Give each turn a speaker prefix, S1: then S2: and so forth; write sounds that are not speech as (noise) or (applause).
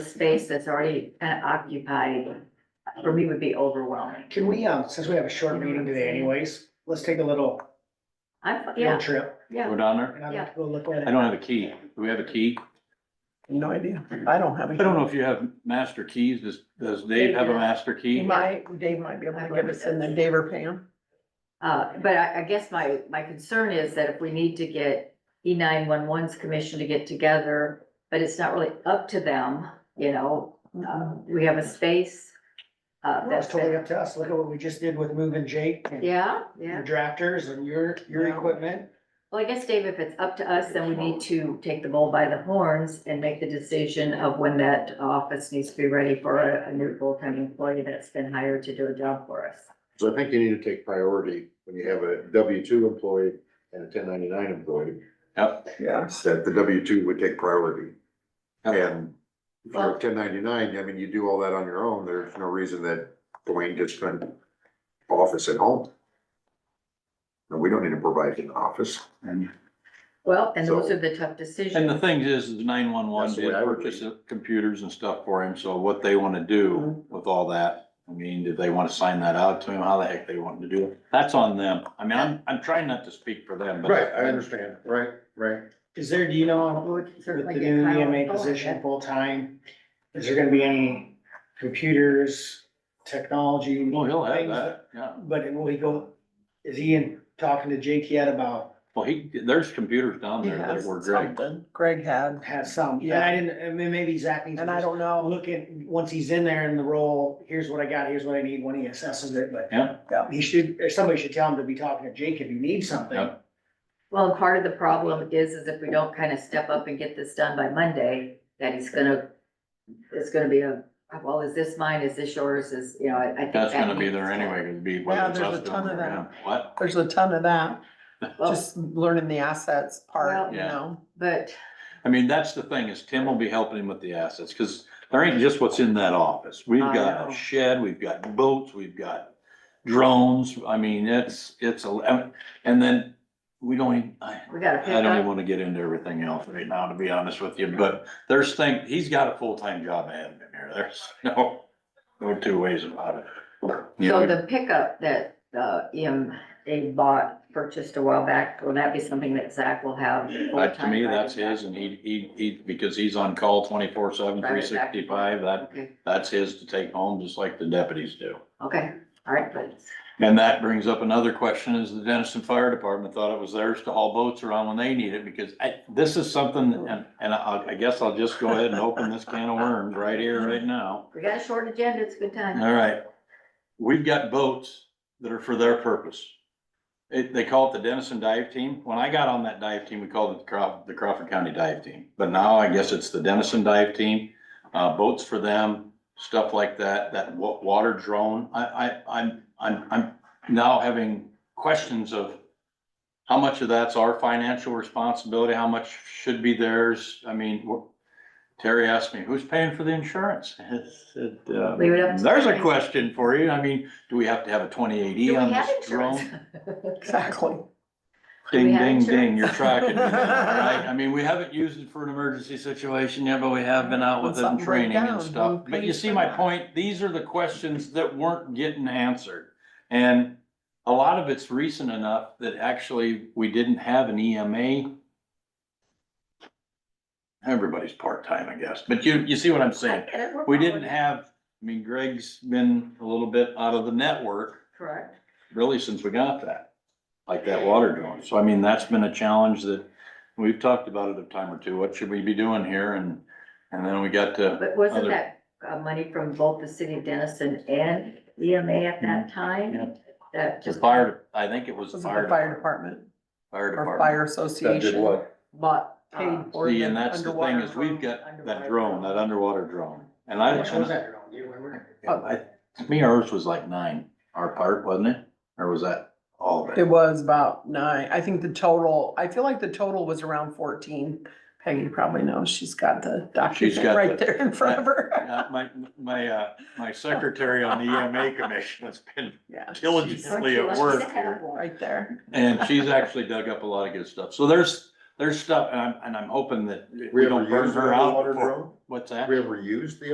S1: space that's already kind of occupied, for me would be overwhelming.
S2: Can we, um, since we have a short meeting today anyways, let's take a little
S1: I'm,
S2: field
S1: yeah,
S2: trip
S1: yeah.
S3: Go down there?
S2: and I'll
S1: Yeah.
S2: go look at
S3: I
S2: it.
S3: don't have a key. Do we have a key?
S4: No idea. I don't have
S3: I
S4: a.
S3: don't know if you have master keys. Does, does Dave have a master
S4: He
S3: key?
S4: might, Dave might be able to give us, and then Dave or Pam.
S1: Uh, but I, I guess my, my concern is that if we need to get E 911s commission to get together, but it's not really up to them, you know, uh, we have a space. Uh, that's,
S2: That's totally up to us. Look at what we just did with moving Jake and your
S1: yeah, yeah.
S2: drafters and your, your
S4: Yeah.
S2: equipment.
S1: Well, I guess, Dave, if it's up to us, then we need to take the bull by the horns and make the decision of when that office needs to be ready for a, a new full-time employee that's been hired to do a job for us.
S5: So I think you need to take priority when you have a W two employee and a ten ninety-nine employee,
S3: Yep.
S4: Yeah.
S5: that the W two would take priority.
S3: Yep.
S5: And if you're ten ninety-nine, I mean, you do all that on your own, there's no reason that Dwayne just couldn't office at home. And we don't need to provide an office.
S3: And
S1: Well, and those
S5: So-
S1: are the tough decisions.
S3: and the thing is, is nine one one
S5: That's the
S3: did
S5: way I would
S3: purchase computers and stuff for him. So what they want to do
S4: Mm-hmm.
S3: with all that, I mean, did they want to sign that out to him? How the heck they want to do it? That's on them. I mean, I'm, I'm trying not to speak for them, but.
S5: understand, right, right.
S2: Is there, do you know,
S1: We would
S2: with
S1: certainly
S2: the
S1: get
S2: new
S1: Kyle
S2: EMA
S1: going,
S2: position
S1: yeah.
S2: full-time, is there gonna be any computers, technology?
S3: Well, he'll have
S2: things
S3: that, yeah.
S2: But will he go, is Ian talking to Jake yet about,
S3: Well, he, there's computers down
S4: He
S3: there that
S4: has
S3: were great.
S4: something. Greg had,
S2: has some, and I didn't, I mean, maybe Zach needs. to
S4: and I
S2: just
S4: don't
S2: I'll
S4: know.
S2: look at, once he's in there in the role, here's what I got, here's what I need, when he assesses it, but
S3: Yeah.
S2: he should, or somebody should tell him to be talking to Jake if he needs something.
S3: Yeah.
S1: Well, and part of the problem is, is if we don't kind of step up and get this done by Monday, that he's gonna, it's gonna be a, well, is this mine, is this yours, is, you know, I I think.
S3: That's
S1: that
S3: gonna be
S1: needs
S3: there
S1: to-
S3: anyway. It'd be.
S4: Yeah,
S3: whether it's
S4: there's
S3: us
S4: a
S3: doing
S4: ton
S3: it
S4: of
S3: or
S4: that.
S3: not. What?
S4: There's a ton of that,
S1: Well,
S4: just learning the assets part, you
S3: Yeah.
S4: know?
S1: But,
S3: I mean, that's the thing is Tim will be helping him with the assets, cause there ain't just what's in that office. We've
S1: I
S3: got
S1: know.
S3: a shed, we've got boats, we've got drones. I mean, it's, it's, a and then we don't, even- I,
S1: we gotta pick
S3: I don't even
S1: up,
S3: wanna get into everything else right now, to be honest with you, but there's thing, he's got a full-time job ahead of him here. There's no, no two ways about it. You
S1: so
S3: know,
S1: the pickup that, uh, EM, they bought, purchased a while back, will that be something that Zach will have?
S3: But to
S1: full-time
S3: me,
S1: right
S3: that's
S1: away?
S3: his and he, he, he, because he's on call twenty-four seven,
S1: Right,
S3: three
S1: exactly.
S3: sixty-five, that,
S1: Okay,
S3: that's his to take home, just like the deputies do.
S1: okay, all right, but,
S3: And that brings up another question, is the Denison Fire Department thought it was theirs to haul boats around when they need it, because I, this is something, and, and I, I guess I'll just go ahead and open this can of worms right here, right now.
S1: we got a short agenda, it's a good time.
S3: All right, we've got boats that are for their purpose. It, they call it the Denison Dive Team. When I got on that dive team, we called it the Crawford, the Crawford County Dive Team. But now I guess it's the Denison Dive Team, uh, boats for them, stuff like that, that wa- water drone. I, I, I'm, I'm, I'm now having questions of how much of that's our financial responsibility, how much should be theirs? I mean, wh- Terry asked me, who's paying for the insurance? I said, uh,
S1: Leave it up to-
S3: There's a question for you. I mean, do we have to have a twenty-eight
S1: Do
S3: E
S1: we
S3: on
S1: have
S3: this
S1: (laughs)
S3: drone?
S1: insurance?
S4: Exactly.
S1: Do we
S3: Ding,
S1: have
S3: ding, ding,
S1: insurance?
S3: you're tracking me now,
S4: (laughs)
S3: right? I mean, we haven't used it for an emergency situation yet, but we have been out with it in
S4: Something break
S3: training
S4: down,
S3: and
S4: we'll
S3: stuff. But
S4: pay
S3: you see
S4: for
S3: my
S4: that.
S3: point, these are the questions that weren't getting answered. And a lot of it's recent enough that actually we didn't have an E EMA. Everybody's part-time, I guess, but you, you see what I'm saying? We didn't have, I mean, Greg's been a little bit out of the network
S1: Correct.
S3: really since we got that, like that water drone. So I mean, that's been a challenge that we've talked about it a time or two. What should we be doing here? And, and then we got to,
S1: But wasn't
S3: Other-
S1: that uh, money from both the city of Denison and EMA at that
S3: Mm-hmm. Yeah.
S1: time? That
S3: the
S1: just
S3: fire, I think it was
S4: This is
S3: the
S4: the
S3: fire.
S4: fire department
S3: Fire
S4: or
S3: department.
S4: fire association.
S1: bought,
S4: Paid
S1: um,
S4: for
S3: See,
S4: the
S3: and that's the thing
S4: underwater.
S3: is we've got
S1: underwater
S3: that drone,
S1: drone.
S3: that underwater drone. And
S2: How
S3: I,
S2: much was
S3: and
S2: that drone? Do you remember?
S3: I, to me, ours was like nine, our part, wasn't it? Or was that all of
S4: It
S3: it?
S4: was about nine. I think the total, I feel like the total was around fourteen. Peggy probably knows. She's got the document
S3: got
S4: right
S3: the-
S4: there in front of her.
S3: Uh, my, my, uh, my secretary on the EMA commission has been
S4: (laughs) Yeah.
S3: diligent.
S4: she's
S1: Aren't you
S3: at
S1: lucky
S3: work
S1: to have one?
S4: Right there.
S3: And she's actually dug up a lot of good stuff. So there's, there's stuff, and I'm, and I'm hoping that we don't burn her out. before- What's that?
S5: We ever used the